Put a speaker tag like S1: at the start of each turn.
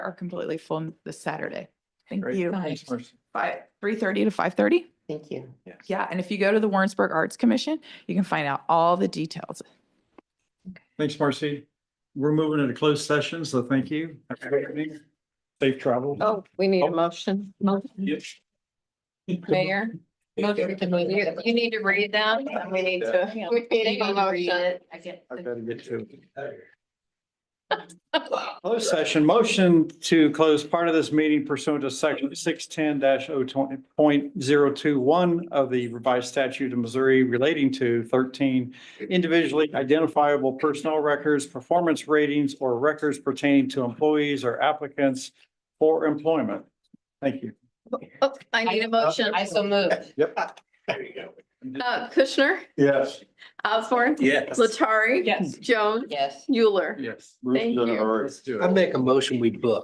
S1: are completely full this Saturday. Thank
S2: Great.
S1: you.
S3: Nice.
S2: Mercy.
S1: Five, three thirty to five thirty?
S3: Thank you.
S1: Yeah, and if you go to the Warrensburg Arts Commission, you can find out all the details.
S2: Thanks, Marcy. We're moving into closed session, so thank you. Have a great evening. Safe travel.
S4: Oh, we need
S2: Oh.
S4: a motion.
S2: Yes.
S4: Mayor,
S3: Motion to
S4: you,
S3: move.
S4: you need to read them and we need to. We need a motion.
S2: I gotta get to it. Closed session, motion to close part of this meeting pursuant to section six ten 20.021 of the revised statute of Missouri relating to thirteen individually identifiable personnel records, performance ratings, or records pertaining to employees or applicants for employment. Thank you.
S4: Oh, I need a motion.
S3: I so moved.
S2: Yep. There you go.
S4: Uh, Kushner,
S2: Yes.
S4: Osborne,
S5: Yes.
S4: Latari.
S3: Yes.
S4: Jones,
S3: Yes.
S4: Euler.
S2: Yes.
S4: Thank you.
S5: I make a motion, we book.